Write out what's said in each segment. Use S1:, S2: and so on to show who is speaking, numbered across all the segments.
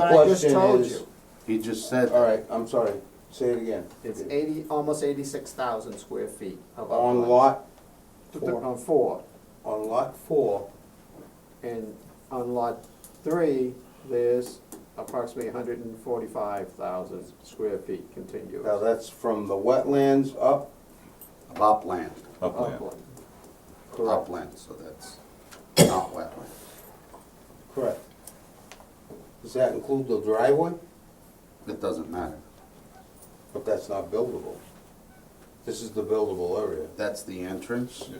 S1: But I just
S2: Question
S1: told
S2: is-
S1: you,
S3: He just said,
S2: All right, I'm sorry, say it again.
S1: it's eighty, almost eighty-six thousand square feet of.
S2: On
S1: uplands.
S2: lot, four.
S1: On four,
S2: on lot four,
S1: and on lot three, there's approximately hundred and forty-five thousand square feet contiguous.
S2: now that's from the wetlands up,
S3: upland,
S4: upland.
S1: upland. Correct.
S3: upland, so that's not wetland.
S2: correct? Does that include the driveway?
S3: It doesn't matter.
S2: But that's not buildable. This is the buildable area.
S3: That's the entrance.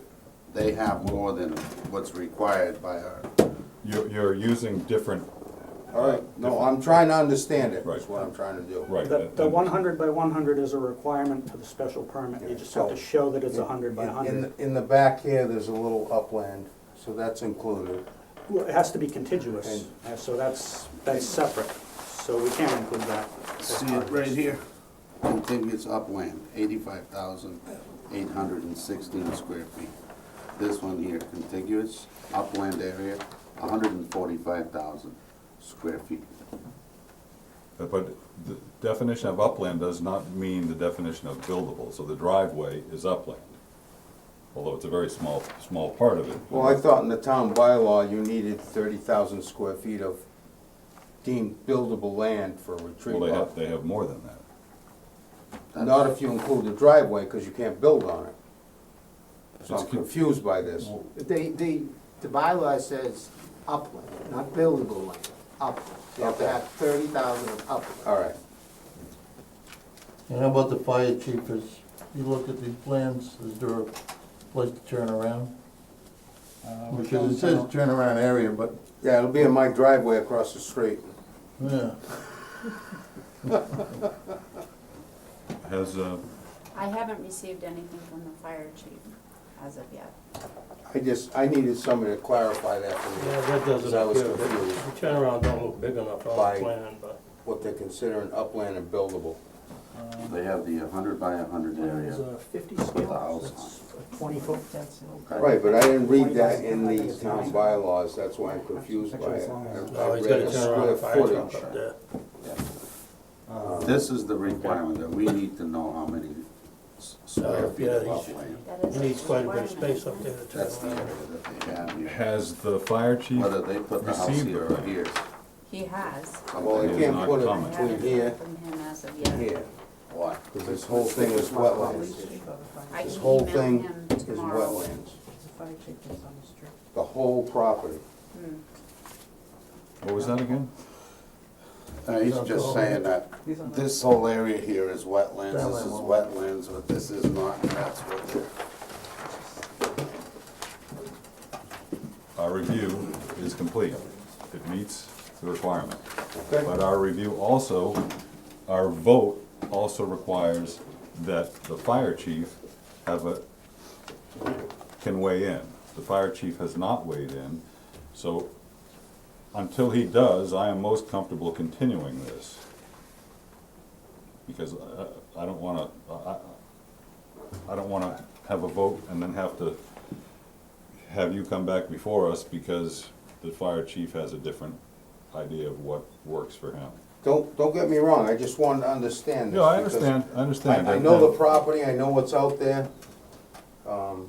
S3: They have more than what's required by our,
S4: You're, you're using different,
S2: All right, no, I'm trying to understand it, is
S4: Right.
S2: what I'm trying to do.
S4: right.
S5: The, the
S4: and-
S5: one hundred by one hundred is a requirement for the special permit, you just have
S3: Oh.
S5: to show that it's hundred by
S2: In-
S5: hundred.
S2: In, in the back here, there's a little upland, so that's included.
S5: Well, it has to be contiguous, uh, so that's, that's separate, so we can't include that. as
S3: see
S5: part
S3: it
S5: of
S3: right
S5: this.
S3: here? Contiguous upland, eighty-five thousand, eight hundred and sixteen square feet. This one here, contiguous upland area, hundred and forty-five thousand square feet.
S4: But the definition of upland does not mean the definition of buildable, so the driveway is upland. Although it's a very small, small part of it.
S2: Well, I thought in the town bylaw, you needed thirty thousand square feet of deemed buildable land for a retreat
S4: Well, they have,
S2: lot.
S4: they have more than that.
S2: Not if you include the driveway, because you can't build on it. So
S4: It's
S2: I'm
S4: con-
S2: confused by this.
S1: The, the, the bylaw says upland, not buildable land, upland. You have to
S2: Okay.
S1: have thirty thousand of upland.
S2: All right,
S6: And how about the fire chief, is, you looked at these plans, is there a place to turn around? Because it says turnaround area, but,
S2: yeah, it'll be in my driveway across the street.
S6: yeah,
S4: Has, uh,
S7: I haven't received anything from the fire chief as of yet.
S2: I just, I needed somebody to clarify that for me.
S8: Yeah, that doesn't
S2: 'Cause I was
S8: appear, the
S2: confused.
S8: the turnaround don't look big enough on
S2: By-
S8: the plan, but.
S2: what they're considering upland and buildable.
S3: They have the hundred by hundred
S5: It's
S3: area.
S5: a fifty
S3: Thousand.
S5: scale, that's a twenty foot,
S3: okay?
S2: Right, but I didn't read that in the town bylaws, that's why I'm confused by it. I- I
S8: Oh, he's got
S2: read
S8: a turnaround
S2: a square
S8: fire truck
S2: footage.
S8: up there.
S3: This is the requirement, that we need to know how many s- square
S8: Oh,
S3: feet
S8: yeah,
S3: of
S8: he's-
S3: upland.
S7: That is
S8: He needs quite a bit of
S7: requirement.
S8: space up there to turn
S3: That's the area
S8: around.
S3: that they have here.
S4: has the fire chief,
S3: Whether they put the house
S4: Received
S3: here
S4: it.
S3: or here.
S7: He has.
S2: Well, you can't put
S7: I
S2: it
S4: Comment.
S2: between
S7: haven't
S2: here
S7: heard from him as of
S2: and
S7: yet.
S2: here,
S3: Why?
S2: because this whole thing is wetlands.
S7: I can
S2: This whole thing
S7: email him
S2: is
S7: tomorrow.
S2: wetlands, the whole property.
S4: what was that again?
S3: Uh, he's just saying that this whole area here is wetlands, this is wetlands, but this is not, and that's what they're.
S4: Our review is complete. It meets the requirement.
S2: Okay.
S4: But our review also, our vote also requires that the fire chief have a, can weigh in. The fire chief has not weighed in, so until he does, I am most comfortable continuing this. Because uh, I don't wanna, I, I- I don't wanna have a vote and then have to have you come back before us because the fire chief has a different idea of what works for him.
S2: Don't, don't get me wrong, I just wanted to understand this.
S4: No, I
S2: because
S4: understand, I understand.
S2: I, I know the property, I know what's out there, um,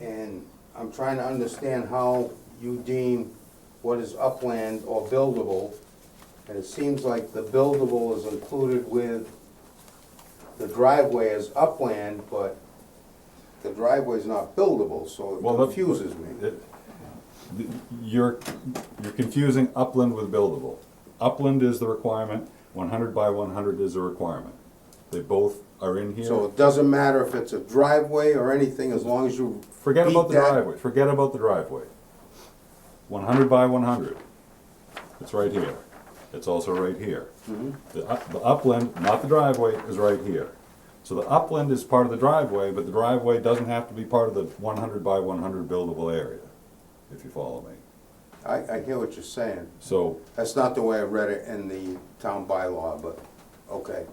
S2: and I'm trying to understand how you deem what is upland or buildable. And it seems like the buildable is included with the driveway as upland, but the driveway is not buildable, so it
S4: Well, that-
S2: confuses me.
S4: It- th- You're, you're confusing upland with buildable. Upland is the requirement, one hundred by one hundred is a requirement. They both are in
S2: So
S4: here.
S2: it doesn't matter if it's a driveway or anything, as long as you.
S4: Forget about
S2: beat
S4: the
S2: that-
S4: driveway, forget about the driveway. One hundred by one hundred. It's right here. It's also right here.
S2: Mm-hmm.
S4: The up- the upland, not the driveway, is right here. So the upland is part of the driveway, but the driveway doesn't have to be part of the one hundred by one hundred buildable area, if you follow me.
S2: I, I hear what you're saying.
S4: So
S2: That's not the way I read it in the town bylaw, but, okay,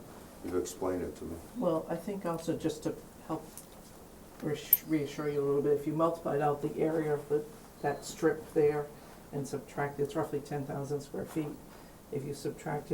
S2: you've explained it to me.
S9: Well, I think also just to help reass- reassure you a little bit, if you multiplied out the area of the, that strip there and subtract, it's roughly ten thousand square feet. if you subtracted